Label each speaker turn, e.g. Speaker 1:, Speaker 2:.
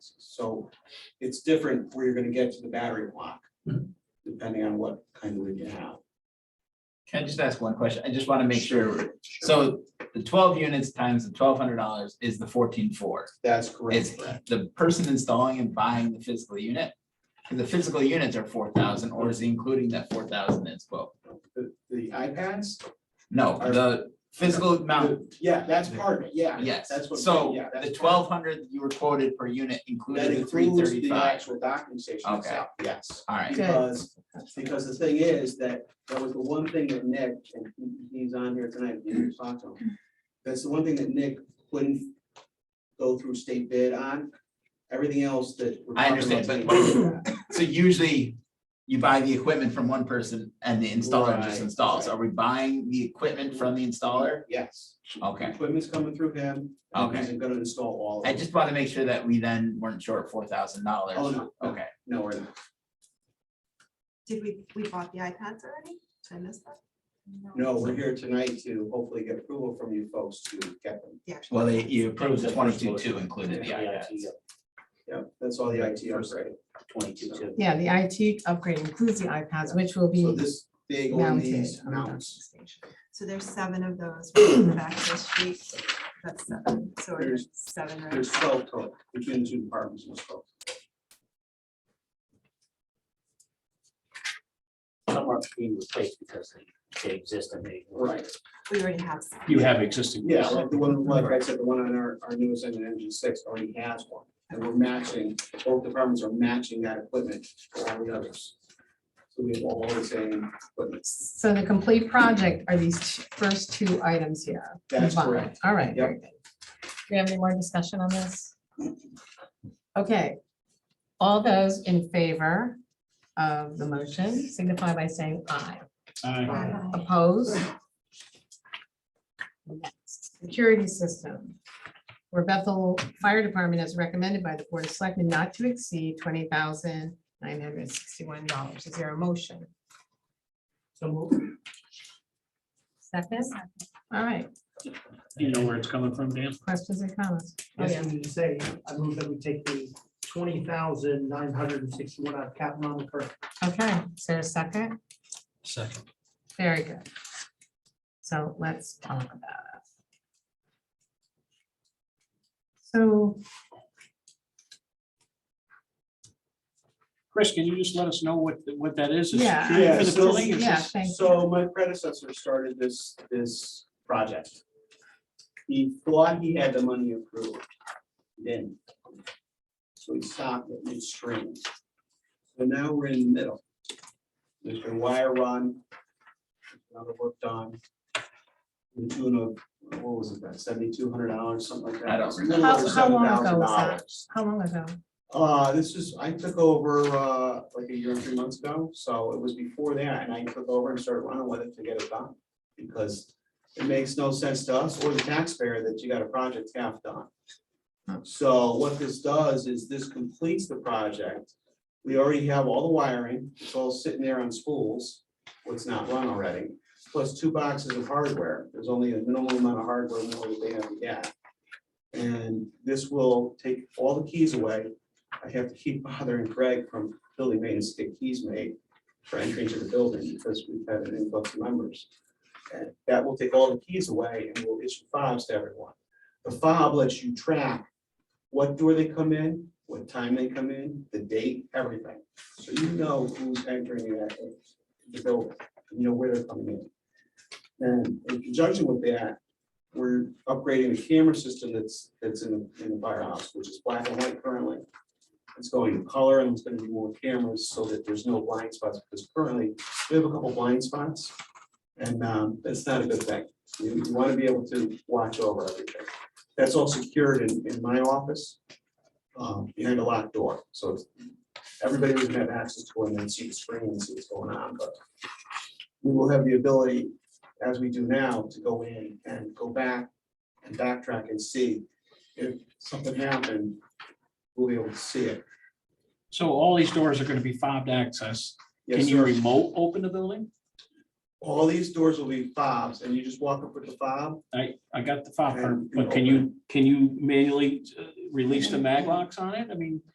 Speaker 1: So it's different where you're gonna get to the battery block,
Speaker 2: Mhm.
Speaker 1: depending on what kind of lead you have.
Speaker 2: Can I just ask one question? I just want to make sure. So the twelve units times the twelve hundred dollars is the fourteen four.
Speaker 1: That's correct.
Speaker 2: It's the person installing and buying the physical unit. And The physical units are four thousand, or is he including that four thousand as well?
Speaker 1: The the iPads?
Speaker 2: No, the physical amount,
Speaker 1: Yeah, that's part of it, yeah.
Speaker 2: yes.
Speaker 1: That's what.
Speaker 2: So
Speaker 1: yeah, that's
Speaker 2: the
Speaker 1: part of
Speaker 2: twelve hundred you were quoted per unit
Speaker 1: it. That
Speaker 2: included the three
Speaker 1: includes the
Speaker 2: thirty-five.
Speaker 1: actual documentation
Speaker 2: Okay.
Speaker 1: itself, yes.
Speaker 2: All right,
Speaker 3: Good.
Speaker 1: Because, because the thing is that, that was the one thing that Nick, and he- he's on here tonight, you can talk to him. That's the one thing that Nick couldn't go through state bid on, everything else that. we're
Speaker 2: I
Speaker 1: talking about
Speaker 2: understand,
Speaker 1: tonight-
Speaker 2: so usually you buy the equipment from one person and the installer
Speaker 1: Right,
Speaker 2: just installs. Are we buying the equipment from the installer?
Speaker 1: Yes.
Speaker 2: Okay.
Speaker 1: Equipment's coming through him. and He's gonna install all of
Speaker 2: I
Speaker 1: it.
Speaker 2: just want to make sure that we then weren't short four thousand dollars.
Speaker 1: Oh, no, no,
Speaker 2: Okay,
Speaker 1: no, we're not.
Speaker 3: Did we, we bought the iPads already? Did I miss that?
Speaker 1: no, we're here tonight to hopefully get approval from you folks to get them.
Speaker 3: The actual
Speaker 2: well, they,
Speaker 3: iPads.
Speaker 2: you approved
Speaker 4: That was the first
Speaker 2: twenty-two two
Speaker 4: motion.
Speaker 2: included the
Speaker 4: Yeah,
Speaker 2: iPads.
Speaker 1: Yeah, that's all the IT upgrade.
Speaker 4: Twenty-two, two.
Speaker 5: Yeah, the IT upgrade includes the iPads, which will
Speaker 1: So
Speaker 5: be
Speaker 1: this big on
Speaker 5: mounted
Speaker 1: these
Speaker 5: on the docking
Speaker 1: mounts,
Speaker 5: station.
Speaker 3: So there's seven of those in the back of this sheet. That's seven. So we're
Speaker 1: There's-
Speaker 3: at seven, right?
Speaker 1: there's twelve total between the two departments. there's 12.
Speaker 4: Some are being replaced because they, they exist and they.
Speaker 1: Right,
Speaker 3: We already have. some.
Speaker 4: You have existing.
Speaker 1: yeah, like the one, like I said, the one on our, our newest engine, engine six already has one. And we're matching, both departments are matching that equipment for all the others. So we have all the same equipment.
Speaker 5: So the complete project are these two- first two items here.
Speaker 1: That's
Speaker 5: combined.
Speaker 1: correct.
Speaker 5: All right, very good. Do we have any more discussion on this? Okay, all those in favor of the motion signify by saying aye. Opposed? Next, Security system. Where Bethel Fire Department is recommended by the Board of Selectmen not to exceed twenty thousand nine hundred sixty-one dollars. Is there a motion? Second? All right,
Speaker 6: You know where it's coming from, Dan?
Speaker 5: questions and comments? Oh,
Speaker 7: Yes,
Speaker 5: yeah.
Speaker 7: we need to say, I move that we take the twenty thousand nine hundred and sixty-one out of capital non-recurring.
Speaker 5: Okay, is there a second?
Speaker 6: Second.
Speaker 5: Very good. So let's talk about it. So
Speaker 6: Chris, can you just let us know what, what that is? It's
Speaker 5: Yeah.
Speaker 6: security
Speaker 1: Yeah,
Speaker 6: Uh, For the
Speaker 1: so-
Speaker 6: building? Is
Speaker 5: Yeah,
Speaker 6: this-
Speaker 5: thank
Speaker 1: So my predecessor started this, this project. He thought he had the money approved, then. So he stopped it midstream. So now we're in the middle. There's been wire run. Another work done. to The tune of, what was it, about seventy-two hundred dollars, something like that.
Speaker 2: I don't
Speaker 1: It's a little
Speaker 5: How-
Speaker 1: over
Speaker 5: how long ago was that?
Speaker 1: $7,000.
Speaker 5: how long ago?
Speaker 1: Uh, this is, I took over, uh, like a year and three months ago, so it was before that, and I took over and started running with it to get it done. Because it makes no sense to us or the taxpayer that you got a project half done. So what this does is this completes the project. We already have all the wiring, it's all sitting there on spools, what's not run already, plus two boxes of hardware. There's only a minimal amount of hardware more that they have to get. And this will take all the keys away, I have to keep bothering Greg from building maintenance to get keys made for entry into the building because we've had an influx of members. And That will take all the keys away and we'll issue fobs to everyone. The fob lets you track what door they come in, what time they come in, the date, everything. So you know who's entering that, the building, you know where they're coming in. And in conjunction with that, we're upgrading the camera system that's, that's in the, in the firehouse, which is black and white currently. It's going to color and it's gonna be more cameras so that there's no blind spots, because currently, we have a couple blind spots. And um, that's not a good thing. You you wanna be able to watch over everything. That's all secured in, in my office. um, Behind a locked door, so it's- everybody doesn't have access to it and see the screen and see what's going on, but. We will have the ability, as we do now, to go in and go back and backtrack and see if something happened. We'll be able to see it.
Speaker 6: So all these doors are gonna be fobbed access. Can
Speaker 1: Yes,
Speaker 6: you
Speaker 1: sir.
Speaker 6: remote open the building?
Speaker 1: All these doors will be fobs and you just walk up with the fob.
Speaker 6: I, I got the fob
Speaker 1: And
Speaker 6: part,
Speaker 1: you
Speaker 6: but can you, can you manually uh, release the mag locks on it? I mean,